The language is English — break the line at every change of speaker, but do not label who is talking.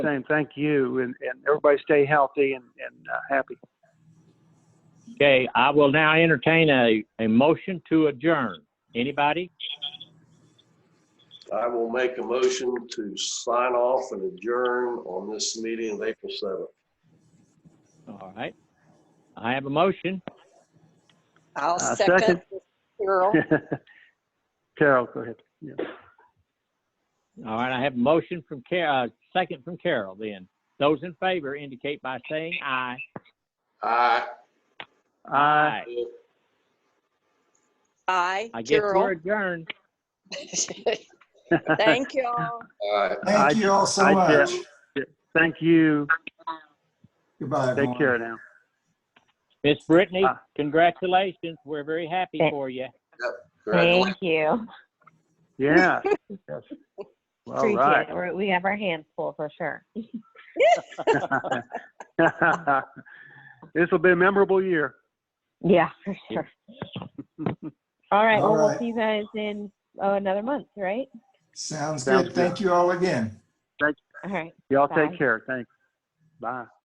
Same, thank you, and, and everybody stay healthy and, and uh, happy.
Okay, I will now entertain a, a motion to adjourn. Anybody?
I will make a motion to sign off and adjourn on this meeting of April 7th.
All right. I have a motion.
I'll
Uh,
second
second.
Carol.
Carol, go ahead. Yeah.
All right, I have a motion from Carol, second from Carol then. Those in favor indicate by saying aye.
Aye.
Aye.
Aye,
I guess we're
Carol.
adjourned.
Thank you all.
Aye.
I-
Thank you all so
I
much.
did. Thank you.
Goodbye,
Take
everyone.
care now.
Miss Brittany,
Ah.
congratulations. We're very happy
Thank-
for you.
Congratulations.
Thank you.
Yeah. Yes. All
Appreciate
right.
it. We're- We have our hands full for sure.
This will be a memorable year.
Yeah, for sure. All right, well,
All
we'll
right.
see you guys in, oh, another month, right?
Sounds
Sounds
good. Thank you all again.
All right.
Y'all
Bye.
take care. Thanks. Bye.